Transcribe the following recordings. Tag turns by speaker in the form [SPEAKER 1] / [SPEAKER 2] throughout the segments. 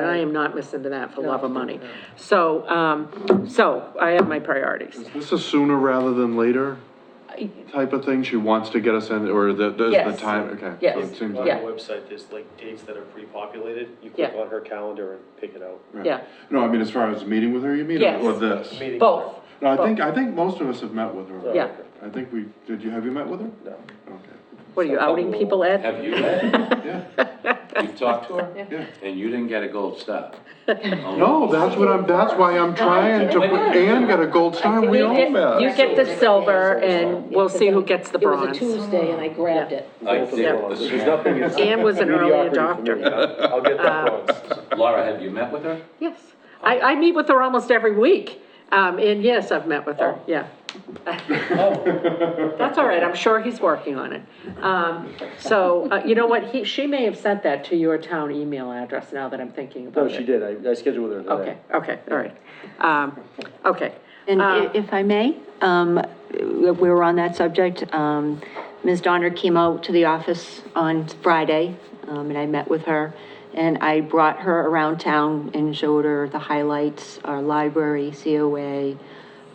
[SPEAKER 1] am not missing to that for love of money.
[SPEAKER 2] No, no.
[SPEAKER 1] So, um, so I have my priorities.
[SPEAKER 3] This is sooner rather than later type of thing? She wants to get us in, or the, the- the
[SPEAKER 1] Yes.
[SPEAKER 3] time, okay.
[SPEAKER 1] Yes.
[SPEAKER 3] So it seems
[SPEAKER 2] On
[SPEAKER 3] like-
[SPEAKER 2] the
[SPEAKER 1] Yeah.
[SPEAKER 2] website, there's like dates that are pre-populated, you click
[SPEAKER 1] Yeah.
[SPEAKER 2] on her calendar and pick it out.
[SPEAKER 3] right.
[SPEAKER 1] Yeah.
[SPEAKER 3] No, I mean, as far as meeting with her, you mean,
[SPEAKER 1] Yes.
[SPEAKER 3] or this?
[SPEAKER 2] Meeting. Oh,
[SPEAKER 1] Both.
[SPEAKER 3] No, I think, I think most of us have met with her.
[SPEAKER 1] Yeah.
[SPEAKER 3] I think we, did you, have you met with her?
[SPEAKER 2] No.
[SPEAKER 3] Okay,
[SPEAKER 1] What are you outing people, Ed?
[SPEAKER 4] Have you, Ed?
[SPEAKER 3] yeah,
[SPEAKER 4] You've talked to her?
[SPEAKER 3] yeah.
[SPEAKER 4] And you didn't get a gold star?
[SPEAKER 3] No, that's what I'm, that's why I'm trying to, Anne got a gold star, we all
[SPEAKER 1] You get-
[SPEAKER 3] met.
[SPEAKER 1] You get the silver and we'll see who gets the
[SPEAKER 5] It was a
[SPEAKER 1] bronze.
[SPEAKER 5] Tuesday and I grabbed it.
[SPEAKER 4] I think this
[SPEAKER 2] There's
[SPEAKER 4] is,
[SPEAKER 2] nothing is.
[SPEAKER 1] Ann was an early
[SPEAKER 2] mediocrity for me.
[SPEAKER 1] adopter.
[SPEAKER 2] I'll I'll get
[SPEAKER 1] Uh,
[SPEAKER 2] that bronze.
[SPEAKER 4] Laura, have you met with her?
[SPEAKER 1] Yes. I, I meet with her almost every week. Um, and yes, I've met with her, yeah. That's all right, I'm sure he's working on it. Um, so, uh, you know what, he, she may have sent that to your town email address now that I'm thinking about
[SPEAKER 2] No,
[SPEAKER 1] it.
[SPEAKER 2] she did, I, I scheduled with her today.
[SPEAKER 1] Okay, okay, all right. Um, okay.
[SPEAKER 6] And
[SPEAKER 1] Uh,
[SPEAKER 6] i- if I may, um, we were on that subject. um, Ms. Donner came out to the office on Friday, um, and I met with her. And I brought her around town and showed her the highlights, our library, COA.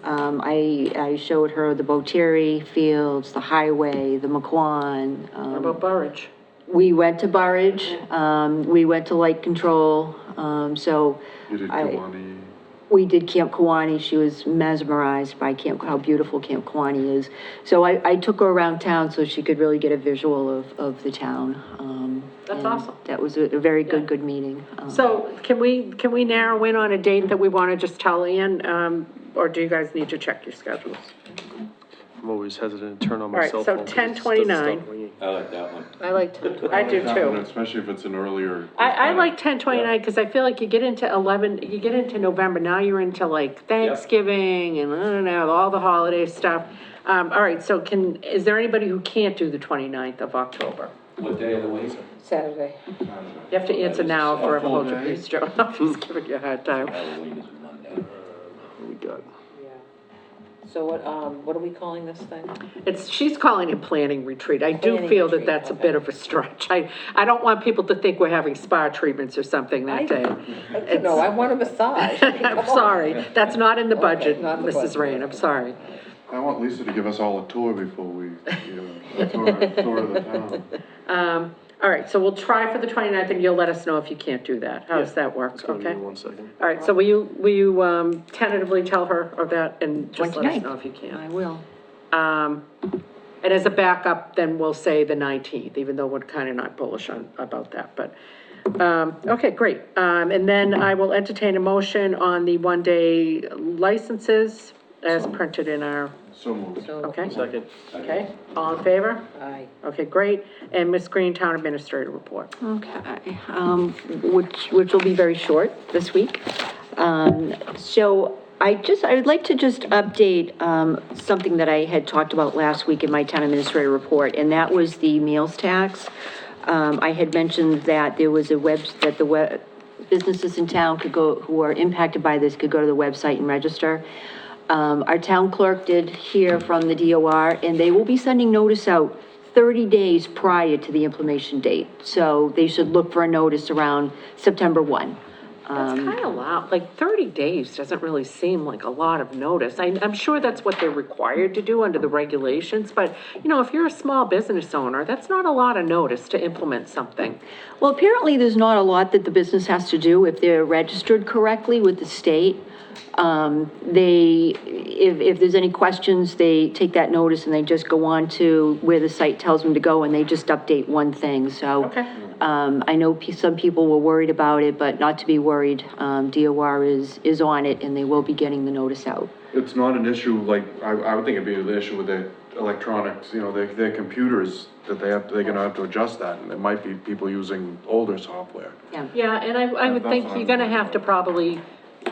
[SPEAKER 6] Um, I, I showed her the Boteri Fields, the highway, the McQuon. um,
[SPEAKER 1] What About Burridge.
[SPEAKER 6] we went to Burridge, um, we went to Lake Control, um, so.
[SPEAKER 3] You did
[SPEAKER 6] I-
[SPEAKER 3] Kiwani,
[SPEAKER 6] we did Camp Kawani. She was mesmerized by Camp, how beautiful Camp Kawani is. So I, I took her around town so she could really get a visual of, of the town. Um,
[SPEAKER 1] That's
[SPEAKER 6] and
[SPEAKER 1] awesome.
[SPEAKER 6] That was a, a very good,
[SPEAKER 1] Yeah.
[SPEAKER 6] good meeting. Um,
[SPEAKER 1] So can we, can we narrow in on a date that we want to just tell Ann? Um, or do you guys need to check your schedules?
[SPEAKER 2] I'm always hesitant to turn on
[SPEAKER 1] All
[SPEAKER 2] my
[SPEAKER 1] right,
[SPEAKER 2] cell
[SPEAKER 1] so
[SPEAKER 2] phone. 'cause it doesn't stop
[SPEAKER 1] 10:29.
[SPEAKER 2] ringing.
[SPEAKER 4] I like that one.
[SPEAKER 5] I liked it.
[SPEAKER 1] I do too.
[SPEAKER 3] especially if it's an earlier.
[SPEAKER 1] I, I like ten twenty-nine, because I feel like you get into eleven, you get into November, now you're into like Thanksgiving and I don't know, all the holiday stuff. Um, all right, so can, is there anybody who can't do the 29th of October?
[SPEAKER 4] What day of the week?
[SPEAKER 5] Saturday.
[SPEAKER 1] You have to answer now or I'll hold your
[SPEAKER 3] Okay.
[SPEAKER 1] peace, Joe. I'm just giving you a hard time.
[SPEAKER 4] Halloween is Monday.
[SPEAKER 2] We got,
[SPEAKER 5] So what, um, what are we calling this thing?
[SPEAKER 1] It's, she's calling it planning retreat. I do
[SPEAKER 5] Planning
[SPEAKER 1] feel that
[SPEAKER 5] retreat,
[SPEAKER 1] that's a
[SPEAKER 5] okay.
[SPEAKER 1] bit of a stretch. I, I don't want people to think we're having spa treatments or something
[SPEAKER 5] I-
[SPEAKER 1] that day.
[SPEAKER 5] I don't know, I want a massage.
[SPEAKER 1] I'm sorry, that's not in the budget,
[SPEAKER 5] not in the
[SPEAKER 1] Mrs.
[SPEAKER 5] budget.
[SPEAKER 1] Rain, I'm sorry.
[SPEAKER 3] I want Lisa to give us all a tour before we, you know, a tour, a tour of the town.
[SPEAKER 1] Um, all right, so we'll try for the 29th, and you'll let us know if you can't do that. How does that work?
[SPEAKER 2] it's gonna be
[SPEAKER 1] Okay?
[SPEAKER 2] one second.
[SPEAKER 1] All right, so will you, will you, um, tentatively tell her of that and just let us
[SPEAKER 6] 29th.
[SPEAKER 1] know if you
[SPEAKER 6] I
[SPEAKER 1] can?
[SPEAKER 6] will.
[SPEAKER 1] Um, and as a backup, then we'll say the 19th, even though we're kind of not bullish on, about that, but, um, okay, great. Um, and then I will entertain a motion on the one-day licenses as printed in our,
[SPEAKER 3] So moved.
[SPEAKER 5] So,
[SPEAKER 1] okay?
[SPEAKER 2] Second,
[SPEAKER 1] Okay, all in favor?
[SPEAKER 5] aye.
[SPEAKER 1] Okay, great. And Ms. Green, Town Administrator Report.
[SPEAKER 6] Okay, um, which, which will be very short this week. Um, so I just, I would like to just update, um, something that I had talked about last week in my town administrator report, and that was the meals tax. Um, I had mentioned that there was a web, that the web, businesses in town could go, who are impacted by this could go to the website and register. Um, our town clerk did hear from the DOR, and they will be sending notice out 30 days prior to the implementation date. So they should look for a notice around September 1.
[SPEAKER 1] That's kind of loud, like 30 days doesn't really seem like a lot of notice. I, I'm sure that's what they're required to do under the regulations, but, you know, if you're a small business owner, that's not a lot of notice to implement something.
[SPEAKER 6] Well, apparently, there's not a lot that the business has to do if they're registered correctly with the state. Um, They, if, if there's any questions, they take that notice and they just go on to where the site tells them to go, and they just update one thing, so.
[SPEAKER 1] Okay.
[SPEAKER 6] Um, I know pe- some people were worried about it, but not to be worried. Um, DOR is, is on it, and they will be getting the notice out.
[SPEAKER 3] It's not an issue, like, I, I would think it'd be an issue with their electronics, you know, their, their computers, that they have, they're gonna have to adjust that, and it might be people using older software.
[SPEAKER 1] Yeah, and I, I would
[SPEAKER 3] That's
[SPEAKER 1] think
[SPEAKER 3] what
[SPEAKER 1] you're
[SPEAKER 3] I'm
[SPEAKER 1] gonna
[SPEAKER 3] worried
[SPEAKER 1] have to
[SPEAKER 3] about.
[SPEAKER 1] probably,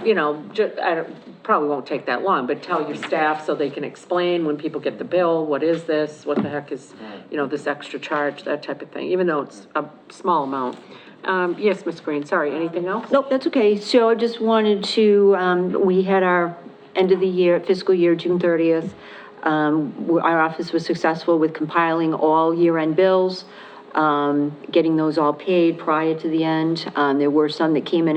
[SPEAKER 1] you know, ju, I don't, probably won't take that long, but tell your staff so they can explain when people get the bill, what is this? What the heck is, you know, this extra charge, that type of thing, even though it's a small amount. Um, yes, Ms. Green, sorry, anything else?
[SPEAKER 6] Nope, that's okay. So I just wanted to, um, we had our end of the year, fiscal year, June thirtieth. Um, we- our office was successful with compiling all year-end bills, um, getting those all paid prior to the end. Um, there were some that came in